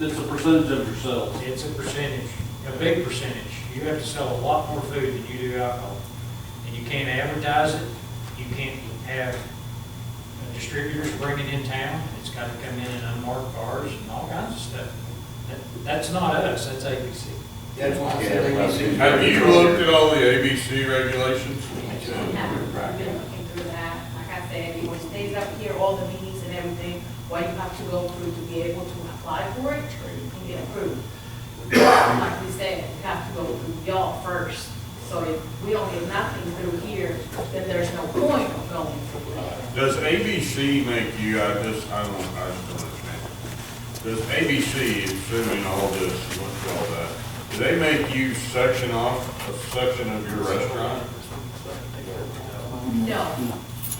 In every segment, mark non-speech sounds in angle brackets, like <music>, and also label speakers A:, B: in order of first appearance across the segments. A: It's a percentage of your sales.
B: It's a percentage, a big percentage. You have to sell a lot more food than you do alcohol. And you can't advertise it, you can't have uh, distributors bring it in town. It's got to come in in unmarked cars and all kinds of stuff. That- That's not us, that's ABC.
C: That's why I said ABC.
D: Have you looked at all the ABC regulations?
E: I've been looking through that, like I said, it stays up here, all the meetings and everything, what you have to go through to be able to apply for it and get approved. Like we said, you have to go through y'all first, so if we don't get nothing through here, then there's no point of going through it.
D: Does ABC make you, I just, I don't, I just don't understand. Does ABC, assuming all this, what's all that, do they make you section off a section of your restaurant
E: No,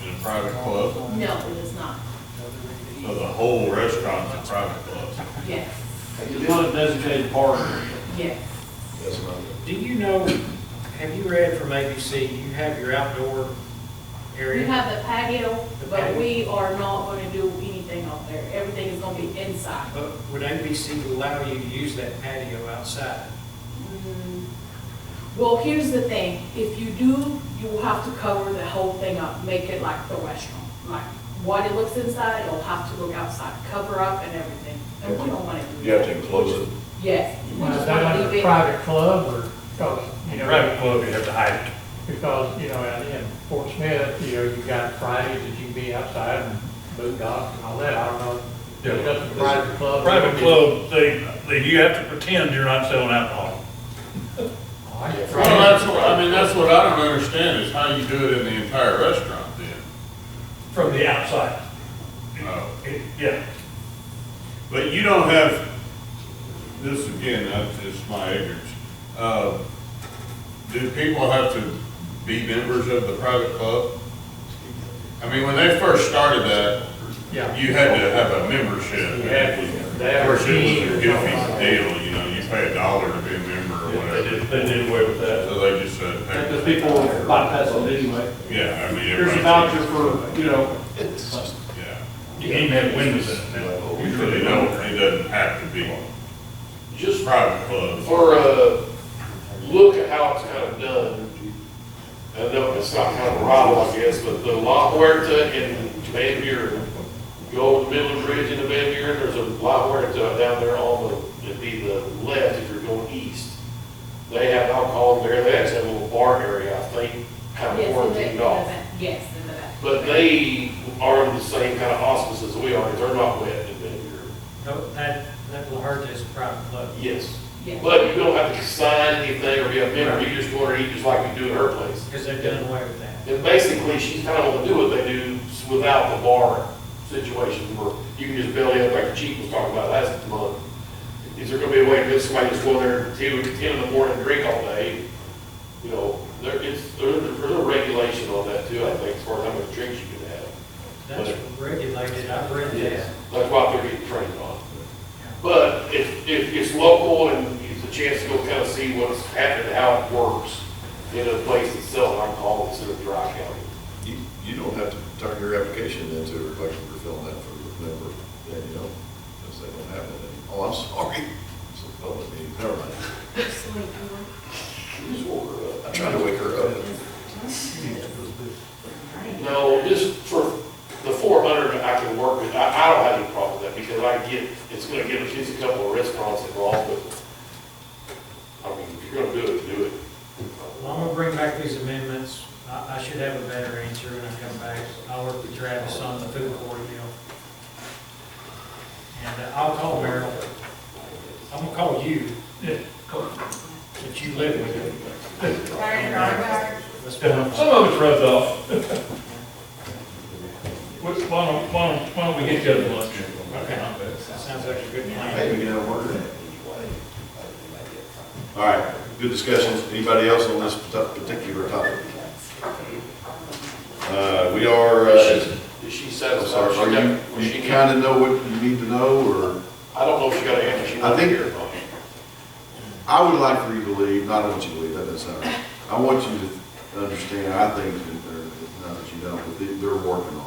D: in a private club?
E: no, it is not,
D: So the whole restaurant's a private club?
E: yes,
A: It's not a designated park.
E: yes.
B: Do you know, have you read from ABC, you have your outdoor
E: We
B: area?
E: have the patio,
B: The
E: but
B: patio.
E: we are not gonna do anything out there, everything is gonna be inside.
B: But would ABC allow you to use that patio outside?
E: Mm. Well, here's the thing, if you do, you will have to cover the whole thing up, make it like the restaurant. Like, what it looks inside, it'll have to look outside, cover up and everything, and we don't wanna do that.
F: You have to enclose it.
E: Yes. we
G: Well, Is
E: just
G: that
E: wanna
G: like
E: leave
G: a
E: it-
G: private club or, because, you know,
H: club, you have to hide it.
G: because, you know, out in Fort Smith, you know, you got Fridays that you can be outside and boot dogs and all that, I don't know.
H: Yeah.
G: Is that a private club?
H: Private club, they, they, you have to pretend you're not selling alcohol.
G: Oh, I get
D: Well, that's what, I mean, that's what I don't understand is how you do it in the entire restaurant then.
H: From the outside.
D: Oh.
H: It- Yeah.
D: But you don't have, this again, that's just my ignorance. Uh, Do people have to be members of the private club? I mean, when they first started that,
G: Yeah.
D: you had to have a membership.
G: You had to. They had
D: Of course, it was a
G: a fee or
D: goofy
G: something.
D: deal, you know, you pay a dollar to be a member or
H: They
D: whatever.
H: did, they did away with that.
D: So they just said,
A: Because
D: hey,
A: people bypass it anyway.
D: yeah, I mean.
A: Here's a
D: everybody-
A: voucher for, you know,
D: Yeah,
H: You can't even have windows in it now.
D: usually they don't, it doesn't have to be
F: Just
D: private clubs.
F: for a look at how it's kind of done, I know it's not kind of rival, I guess, but the La Huerta in Van Buren, go over the Midland Bridge into Van Buren, there's a La Huerta down there on the, it'd be the left if you're going east. They have alcohol in there, they actually have a little bar area, I think, kind of
E: Yes, in the- in
F: quarantined
E: the
F: off.
E: back. Yes, in the back.
F: But they are in the same kind of auspices we are, they're not wet in Van Buren.
B: No, that, that will hurt as a private club.
F: Yes.
E: Yes.
F: But you don't have to sign anything or be a member, you just go in and eat just like you do at her place.
B: Because they've done away with that.
F: And basically, she's kind of gonna do what they do without the bar situation where you can just belly up like the chief was talking about last month. Is there gonna be a way to get somebody to go in there at two, ten in the morning and drink all day? You know, there is, there is there's a regulation on that too, I think, as far as how much drinks you can have.
B: That's regulated, I've read
F: Yes,
B: that.
F: that's what they're getting trained on. But if, if it's local and it's a chance to go kind of see what's happening, how it works in a place that's selling alcohol instead of dry county.
I: You, you don't have to turn your application into a request for filling out for a member, then you don't, because they don't have it. And, Oh, I'm sorry, it's a public meeting, never mind.
F: You just order it.
I: I'm trying to wake her up.
F: No, just for the four hundred I can work with, I, I don't have any problem with that because I get, it's gonna get, it's a couple of restaurants involved, but I mean, if you're gonna do it, do it.
B: Well, I'm gonna bring back these amendments. I, I should have a better answer when I come back. I'll work with Travis on the food court deal. And uh, I'll call Merrill. I'm gonna call you. That you live with. Let's go.
H: Some of it's rubbed off. <laughs> Why don't, why don't, why don't we get together lunch?
B: Okay. Sounds like a good plan.
I: Hey, we can have a word. All right, good discussion. Anybody else on this parti- particular topic? Uh, we are, uh,
F: Is she
I: I'm
F: satisfied?
I: sorry,
F: She
I: are
F: got-
I: you,
F: was she
I: you
F: got-
I: kind of know what you need to know, or?
F: I don't know if she got an answer. She
I: I
F: wasn't
I: think-
F: here or not.
I: I would like for you to leave, not I want you to leave, that doesn't sound right. I want you to understand, I think, that they're, not that you don't, but they- they're working on it.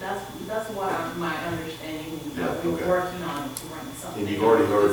E: That's, that's what I- my understanding, is
I: Yeah,
E: that we're
I: okay.
E: working on, to run something.
I: And you've already heard